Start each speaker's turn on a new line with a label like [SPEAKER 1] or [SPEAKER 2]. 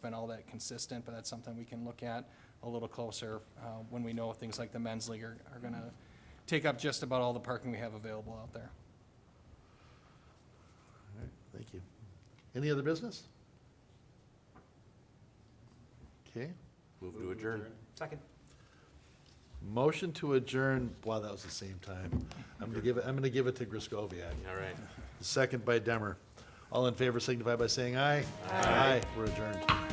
[SPEAKER 1] been all that consistent, but that's something we can look at a little closer uh, when we know things like the men's league are, are going to take up just about all the parking we have available out there.
[SPEAKER 2] All right, Thank you. Any other business? Okay,
[SPEAKER 3] Move to adjourn.
[SPEAKER 1] Second.
[SPEAKER 2] motion to adjourn, wow, that was the same time. I'm gonna give it, I'm gonna give it to Griscoviac.
[SPEAKER 3] All right.
[SPEAKER 2] Second by Demmer. All in favor signify by saying aye. Aye. We're adjourned.